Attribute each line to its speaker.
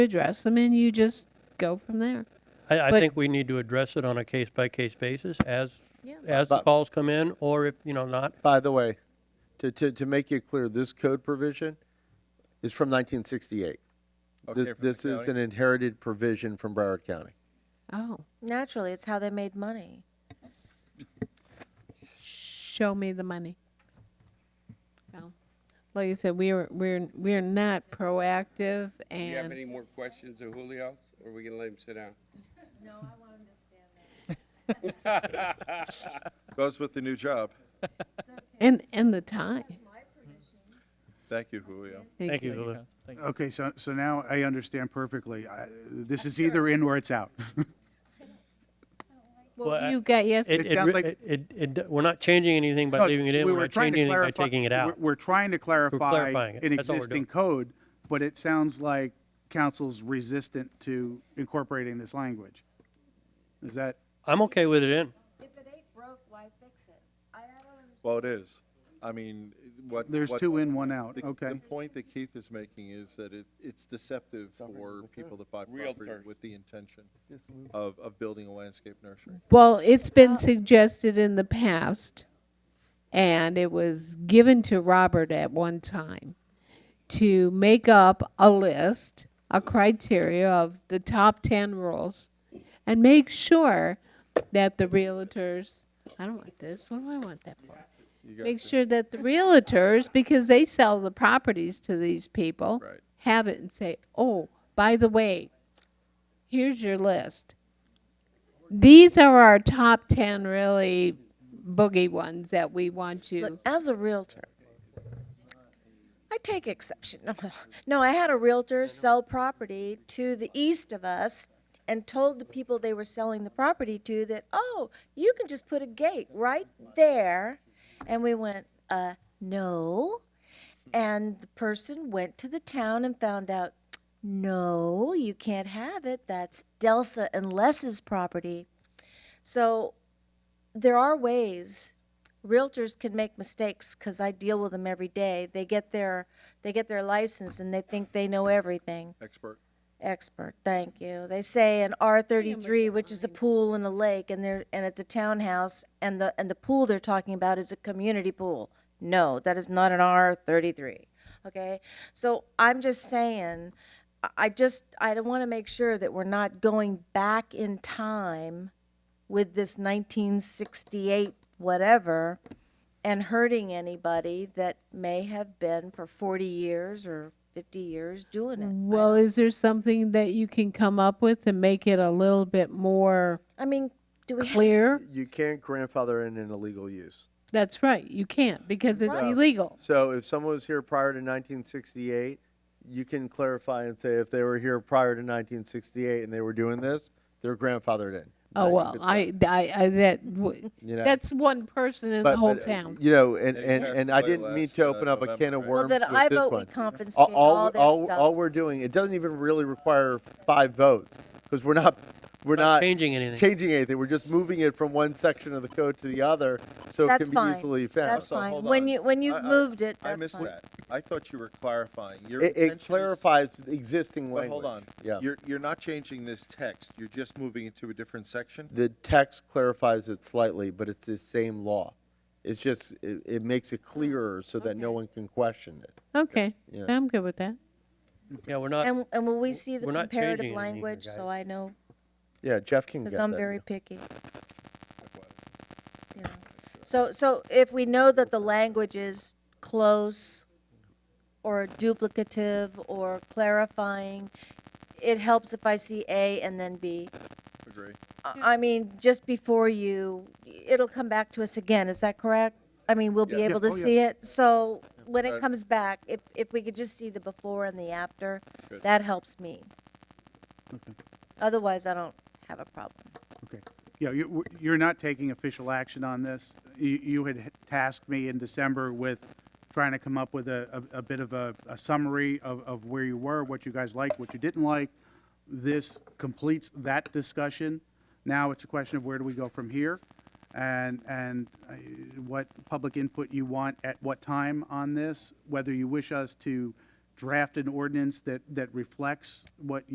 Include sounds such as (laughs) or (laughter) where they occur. Speaker 1: address them and you just go from there.
Speaker 2: I, I
Speaker 1: But-
Speaker 2: think we need to address it on a case-by-case basis as,
Speaker 1: Yeah.
Speaker 2: as the
Speaker 3: But-
Speaker 2: calls come in, or if, you know, not.
Speaker 3: By the way, to, to, to make it clear, this code provision is from 1968.
Speaker 4: Okay,
Speaker 3: This,
Speaker 4: from the
Speaker 3: this is
Speaker 4: county.
Speaker 3: an inherited provision from Broward County.
Speaker 1: Oh,
Speaker 5: Naturally, it's how they made money.
Speaker 1: show me the money. No. Like I said, we are we're we're not proactive
Speaker 6: Do you have
Speaker 1: and
Speaker 6: any more questions of Julio's, or are we gonna let him sit down?
Speaker 4: Goes with the new job.
Speaker 1: and and the time.
Speaker 4: Thank you, Julio.
Speaker 2: Thank you, Lulu.
Speaker 7: Okay, so, so now I understand perfectly. I- This is either in or it's out.
Speaker 2: Well, I-
Speaker 1: What you got
Speaker 2: It,
Speaker 1: yesterday?
Speaker 2: it,
Speaker 7: sounds
Speaker 2: re-
Speaker 7: like-
Speaker 2: it, it, it- we're not changing anything by leaving it in,
Speaker 7: We
Speaker 2: we're
Speaker 7: were
Speaker 2: not
Speaker 7: trying to
Speaker 2: changing anything by
Speaker 7: clarify-
Speaker 2: taking it
Speaker 7: we're-
Speaker 2: out.
Speaker 7: We're trying to clarify
Speaker 2: clarifying it.
Speaker 7: an
Speaker 2: That's all we're doing.
Speaker 7: existing code, but it sounds like council's resistant to incorporating this language. Is that,
Speaker 2: I'm okay with it in.
Speaker 5: If it ain't broke, why fix it? I, I don't understand.
Speaker 4: Well, it is. I mean, what.
Speaker 7: there's
Speaker 4: what-
Speaker 7: two in, one out,
Speaker 4: the- The
Speaker 7: okay.
Speaker 4: point that Keith is making is that it, it's deceptive for people that buy property
Speaker 6: Realtor.
Speaker 4: with the intention of, of building a landscape nursery.
Speaker 1: Well, it's been suggested in the past, and it was given to Robert at one time to make up a list, a criteria of the top 10 rules, and make sure that the realtors, I don't want this, what do I want that for? Make sure that the realtors, because they sell the properties to these people,
Speaker 4: Right.
Speaker 1: have it and say, oh, by the way, here's your list these are our top 10 really boogie ones that we want
Speaker 5: Look,
Speaker 1: you
Speaker 5: as a realtor, I take exception. (laughs) No, I had a realtor sell property to the east of us and told the people they were selling the property to that, oh, you can just put a gate right there. And we went, uh, no. And the person went to the town and found out, no, you can't have it. That's Delsa and Les's property. So there are ways realtors can make mistakes because I deal with them every day. They get their they get their license and they think they know everything.
Speaker 4: Expert.
Speaker 5: Expert, thank you. They say an R thirty three, which is a pool and a lake, and they're and it's a townhouse, and the and the pool they're talking about is a community pool. No, that is not an R thirty three. Okay, so I'm just saying, I- I just I want to make sure that we're not going back in time with this 1968 whatever and hurting anybody that may have been for 40 years or 50 years doing it.
Speaker 1: well is there something that you can come up with and make it a little bit more
Speaker 5: I mean, do we have,
Speaker 1: clear
Speaker 3: You can't grandfather in an illegal use.
Speaker 1: that's right you can't because it's illegal
Speaker 3: So if someone was here prior to 1968, you can clarify and say if they were here prior to 1968 and they were doing this, they're grandfathered in.
Speaker 1: oh
Speaker 3: Right?
Speaker 1: well i i, I that w-
Speaker 3: You know.
Speaker 1: that's one person in the
Speaker 3: But-
Speaker 1: whole
Speaker 3: but, uh,
Speaker 1: town
Speaker 3: You know, and, and,
Speaker 4: passed
Speaker 3: and I
Speaker 4: by
Speaker 3: didn't mean
Speaker 4: last,
Speaker 3: to
Speaker 4: uh,
Speaker 3: open up a can of worms
Speaker 4: November,
Speaker 5: well,
Speaker 3: with
Speaker 5: then
Speaker 3: this one.
Speaker 5: I vote we
Speaker 3: all,
Speaker 5: confiscate all,
Speaker 3: all,
Speaker 5: their
Speaker 3: all,
Speaker 5: stuff.
Speaker 3: all we're doing, it doesn't even really require five votes, because we're not, we're
Speaker 2: Not
Speaker 3: not.
Speaker 2: changing anything.
Speaker 3: Changing anything, we're just moving it from one section of the code to the other, so it
Speaker 5: That's
Speaker 3: can be
Speaker 5: fine.
Speaker 3: easily found.
Speaker 5: That's
Speaker 4: So
Speaker 5: fine.
Speaker 4: hold
Speaker 5: When
Speaker 4: on.
Speaker 5: you- when you've
Speaker 4: I- I-
Speaker 5: moved it,
Speaker 4: I
Speaker 5: that's
Speaker 4: missed
Speaker 5: fine.
Speaker 4: that. I thought you were clarifying. Your
Speaker 3: It,
Speaker 4: intention
Speaker 3: it
Speaker 4: is-
Speaker 3: clarifies the existing
Speaker 4: But
Speaker 3: language.
Speaker 4: hold on.
Speaker 3: Yeah,
Speaker 4: You're, you're not changing this text. You're just moving it to a different section?
Speaker 3: the text clarifies it slightly, but it's the same law. It's just, it, it makes
Speaker 5: Oh.
Speaker 3: it clearer so that no one can question it.
Speaker 1: okay
Speaker 3: Yeah.
Speaker 1: i'm good with that
Speaker 2: Yeah, we're not,
Speaker 5: and, and will we see the
Speaker 2: We're not changing
Speaker 5: comparative
Speaker 2: anything,
Speaker 5: language so I know?
Speaker 3: Yeah, Jeff can get
Speaker 5: Because
Speaker 3: that.
Speaker 5: I'm
Speaker 3: now.
Speaker 5: very picky. You know. So, so if we know that the language is close or duplicative or clarifying, it helps if I see A and then B.
Speaker 4: Agree.
Speaker 5: I- I mean, just before you, it'll come back to us again, is that correct? I mean, we'll be
Speaker 4: Yeah. Uh,
Speaker 5: able
Speaker 7: Yeah.
Speaker 5: to
Speaker 7: Oh, yeah.
Speaker 5: see it, so when
Speaker 4: Right.
Speaker 5: it comes back, if, if we could just see the before and the after,
Speaker 4: Good.
Speaker 5: that helps me. Otherwise, I don't have a problem.
Speaker 7: okay. Yeah, you, you're not taking official action on this. You, you had tasked me in December with trying to come up with a, a a bit of a, a summary of, of where you were, what you guys liked, what you didn't like. This completes that discussion. Now it's a question of where do we go from here? And, and uh, what public input you want at what time on this, whether you wish us to draft an ordinance that, that reflects what